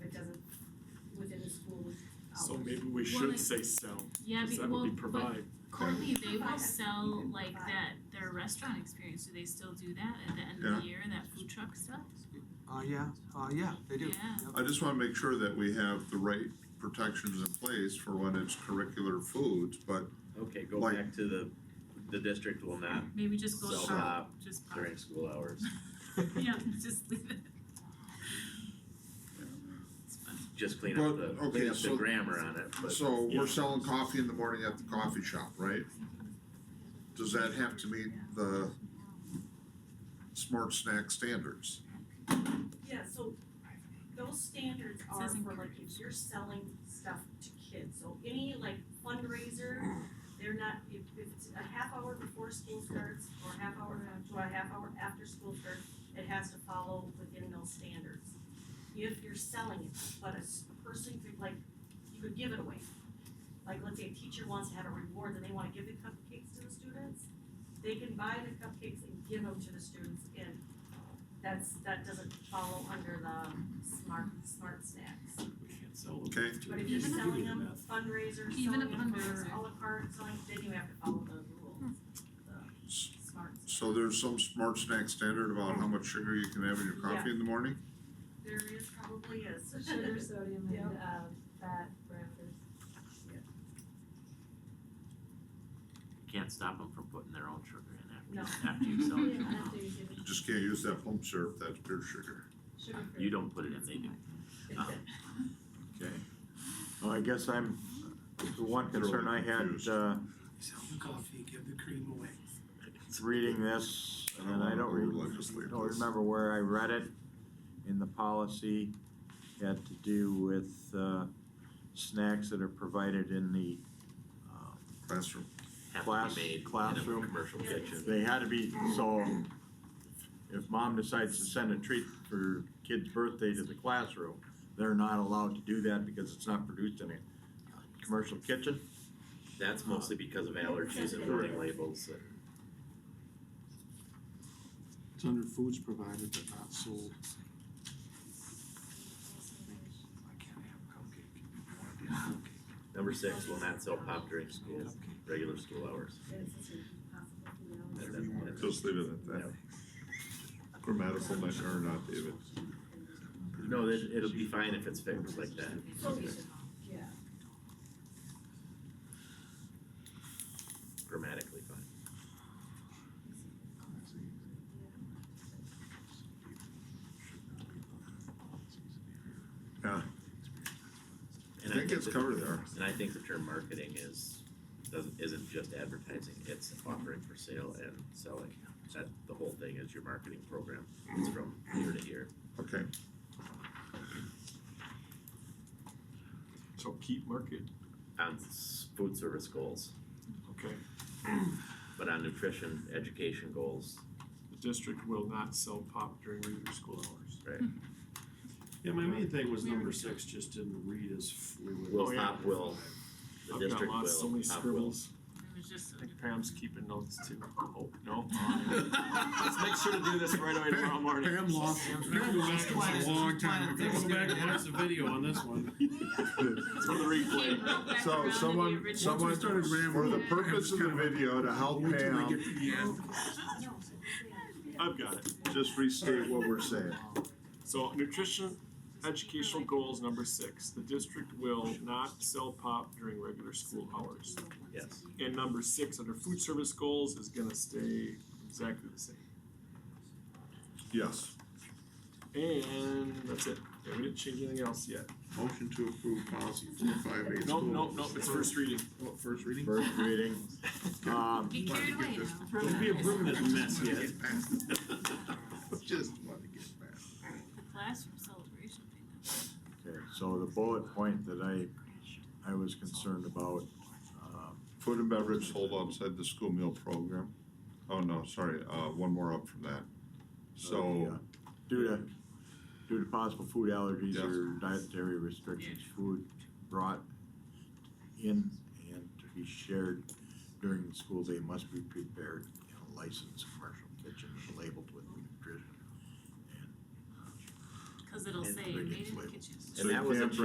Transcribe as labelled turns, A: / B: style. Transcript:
A: So maybe we
B: Well,
A: should
B: it-
A: say sell,
B: Yeah,
A: cause
B: be-
A: that
B: well,
A: would be
B: but
A: provide.
B: Colby, they will sell like that, their restaurant experience, do they still do that at the end of the year, that food truck stuff?
C: Uh, yeah, uh, yeah, they do.
B: Yeah.
C: Yep.
D: I just wanna make sure that we have the right protections in place for when it's curricular foods, but
E: Okay, go
D: Like-
E: back to the, the district will not
B: Maybe just go
E: sell
C: shop.
E: pop
B: just pop,
E: during school hours,
B: yeah, just leave it. It's funny.
E: just clean
D: But,
E: up the,
D: okay,
E: clean up the
D: so-
E: grammar on it, but.
D: So
A: Yeah.
D: we're selling coffee in the morning at the coffee shop, right? Does that have to meet the smart snack standards?
F: Yeah, so those standards are
B: Says
F: for like if you're selling stuff to kids, so any like fundraiser, they're not, if if it's a half hour before school starts or a half hour to a half hour after school starts, it has to follow within those standards. If you're selling it, but a s- a person could like, you could give it away. Like, let's say a teacher wants to have a reward and they wanna give the cupcakes to the students, they can buy the cupcakes and give them to the students and that's, that doesn't follow under the smart, smart snacks.
E: We can't sell them.
D: Okay,
F: But if you're
B: Even a-
F: selling them fundraisers,
B: Even a
F: selling them for
B: fundraiser.
F: à la carte, selling, then you have to follow the rules,
D: S-
F: the smart.
D: so there's some smart snack standard about how much sugar you can have in your coffee in the morning?
F: There is probably is.
G: Sugar, sodium,
F: Yeah.
G: and uh, fat parameters.
E: Can't stop them from putting their own sugar in
F: No.
E: after, after you sell
G: You
E: it.
G: don't have to use it.
D: You just can't use that pump syrup, that's pure sugar.
G: Sugar free.
E: You don't put it in, they do.
D: Okay.
H: Well, I guess I'm, the one concern I
D: Confused.
H: had, uh,
I: Sell the coffee, give the cream away.
H: reading this,
D: I don't
H: and I
D: wanna
H: don't re-
D: over-legislate
H: don't
D: this.
H: remember where I read it, in the policy, had to do with, uh, snacks that are provided in the, um,
D: Classroom.
E: Have
H: Class-
E: to be made in a
H: classroom.
E: commercial kitchen.
H: they had to be, so if mom decides to send a treat for kid's birthday to the classroom, they're not allowed to do that because it's not produced in a commercial kitchen.
E: That's mostly because of allergies and warning labels and.
I: It's under foods provided but not sold. I can't have cupcake. I want to
E: Number six, will not sell pop during school,
I: have cupcake.
E: regular school hours.
I: Whatever you want.
D: Just leave it at that. Grammatical nightmare or not, David.
E: No, it, it'll be fine if it's fixed like that.
F: So we
G: Yeah.
E: Grammatically fine.
D: Yeah,
E: And
D: I think it's
E: the-
D: covered there.
E: And I think the term marketing is, doesn't, isn't just advertising, it's offering for sale and selling. That, the whole thing is your marketing program, it's from year to year.
D: Okay,
A: So keep market,
E: On s- food service goals,
A: okay?
E: but on nutrition, education goals,
A: The district will not sell pop during regular school hours.
E: Right.
J: Yeah, my main thing was
B: We
J: number
B: were-
J: six just didn't read as fluid.
E: will
A: Oh, yeah.
E: pop will, the
A: I've got
E: district
A: lots, so
E: will,
A: many
E: pop will.
A: scribbles.
B: It was just.
A: I think Pam's keeping notes too. Oh, no. Let's make sure to do this right away tomorrow morning.
I: Pam lost, Pam lost it was a long time ago.
J: Go back and watch the video on this one.
A: It's for the replay.
B: Came right back around
D: so
B: to the
D: someone,
B: original.
D: someone, for
I: started rambling,
D: the
B: Yeah.
D: purpose of the video to help
I: Wait till we
D: Pam
I: get to the end.
A: I've got it.
D: just restate what we're saying.
A: So nutrition educational goals number six, the district will not sell pop during regular school hours.
E: Yes.
A: And number six, under food service goals, is gonna stay exactly the same.
D: Yes.
A: And that's it. Yeah, we didn't change anything else yet.
D: Motion to approve policy four five eight.
A: Nope, nope, nope, it's first reading.
I: Oh, First reading?
H: First reading, um,
B: Be carried away now.
I: Don't be a
E: This mess, yes.
D: Just want to get past.
B: Classroom celebration thing.
H: Okay, so the bullet point that I, I was concerned about, um,
D: Food and beverage sold outside the school meal program. Oh, no, sorry, uh, one more up from that.
H: uh,
D: So,
H: due to, due to possible food allergies
D: Yes.
H: or dietary restrictions, food brought in and to be shared during the school day must be prepared in a licensed commercial kitchen and labeled with nutrition.
B: Cause it'll
H: And uh,
B: say made
H: ingredients
B: in the
H: label.
B: kitchen.
D: so
E: And that
D: you
E: was a
D: can't